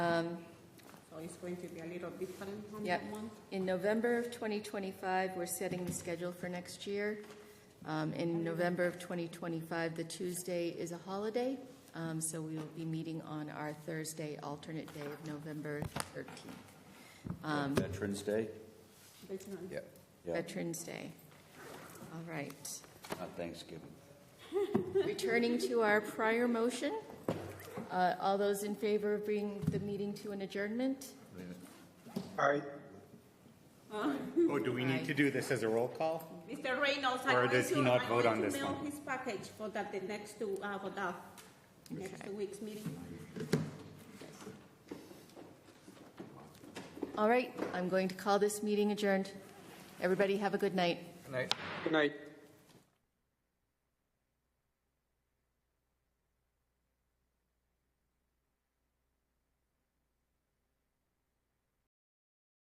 Um, So it's going to be a little different on Yep. that one. In November of 2025, we're setting the schedule for next year. Um, In November of 2025, the Tuesday is a holiday, um, so we will be meeting on our Thursday alternate day of November 13th, Um, Veterans Day? There's none. Yeah. Yeah, Veterans Day. All right. not Thanksgiving. Returning to our prior motion, uh, all those in favor of bringing the meeting to an adjournment? Aye. Oh, do we Aye. need to do this as a roll call? Mr. Reynolds, I'm Or going does he to- not I'm vote going on to this mail one? His package for that, the next two, uh, for the next Okay. two weeks meeting. All right, I'm going to call this meeting adjourned. Everybody have a good night. Good night.